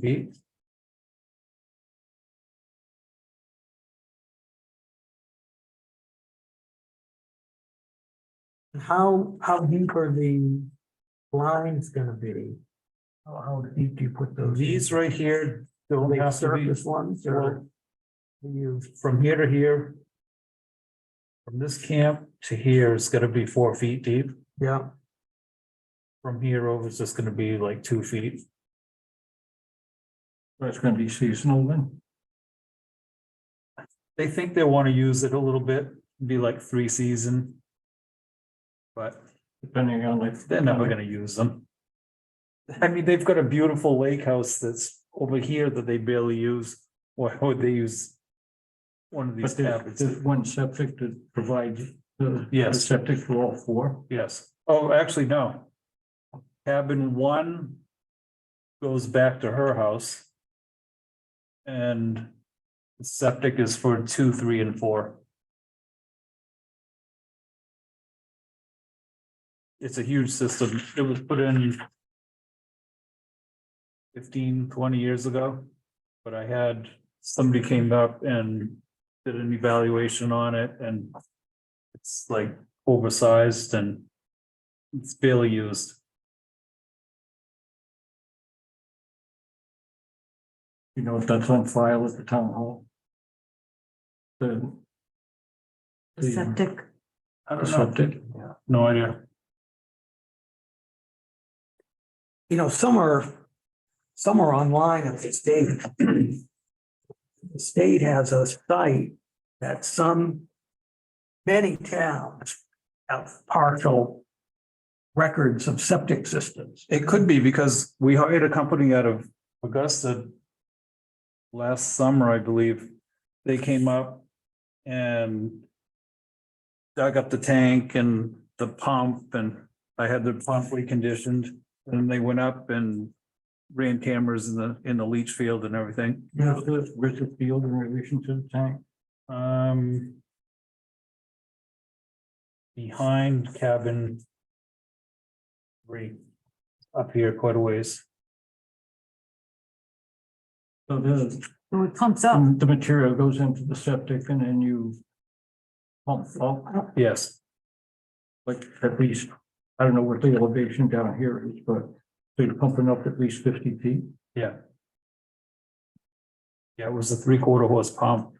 B. How, how deep are the lines gonna be? How, how deep do you put those? in? These right here don't They have to be surface ones they or? won't. You, from here to here. From this camp to here is gonna be four feet deep. yeah, From here over it's just gonna be like two feet. That's gonna be seasonal then. They think they wanna use it a little bit, be like three season. But Depending on if. they're never gonna use them. I mean, they've got a beautiful lake house that's over here that they barely use, or would they use? One of these But there's, tablets, there's one septic to provide the. Yes. the Septic for all four. yes, oh, actually, no. Cabin one. Goes back to her house. And septic is for two, three, and four. It's a huge system, it was put in. 15, 20 years ago, but I had, somebody came up and did an evaluation on it and. It's like oversized and it's barely used. You know, if that's on file at the town hall. The uh, The septic, I the don't know, septic, no idea. you know, some are, some are online at the state. The state has a site that some, many towns have partial records of septic systems. It could be because we hired a company out of Augusta. Last summer, I believe, they came up and. Dug up the tank and the pump and I had the pump reconditioned and they went up and. Ran cameras in the, in the leach field and everything. Yeah. where's the field in relation to the tank? Um. Behind cabin. Three. Up here quite a ways. So the, oh, it pumps up. the material goes into the septic and then you. Pump, pump, Yes, like at least, I don't know what the elevation down here is, but they're pumping up at least fifty feet. yeah. Yeah, it was a three quarter horse pump.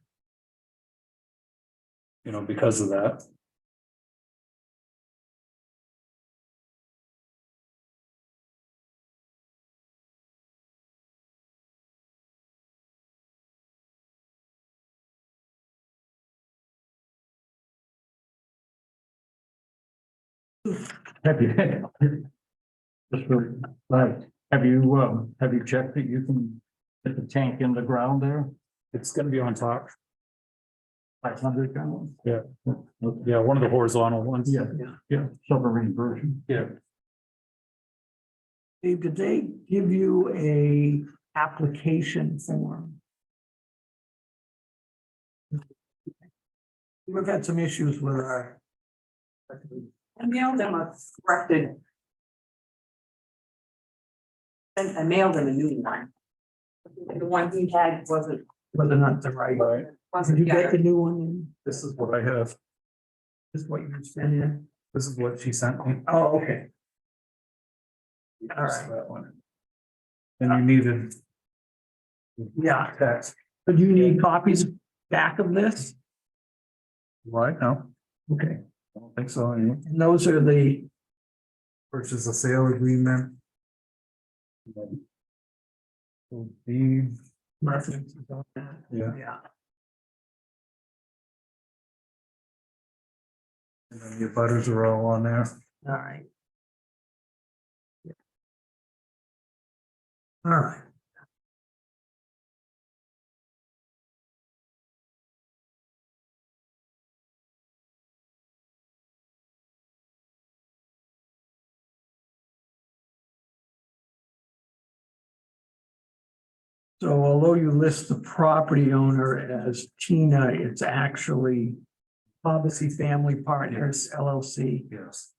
You know, because of that. Have you? Just for, like, have you, um, have you checked that you can get the tank in the ground there, It's gonna be on top. five hundred gallons? Yeah. Yeah, one of the horizontal ones. Yeah, yeah, submarine version. Yeah, Dave, did they give you a application form? We've had some issues with our. I mailed them a corrected. And I mailed them a new one. The one he had wasn't, Whether or not the right. all right, Did wasn't you get yet. the new one in? this is what I have. Is what you sent in? This is what she sent me. Oh, okay. All right. That one. And you needed Yeah, text. but you need copies back of this? Right, no, Okay, I don't think so. any and those are the, Purchase a sale agreement. Will be, references on that. yeah, yeah, and then your butters are all on there. all right. All right. So although you list the property owner as Tina, it's actually Bobacy Family Partners LLC. Yes.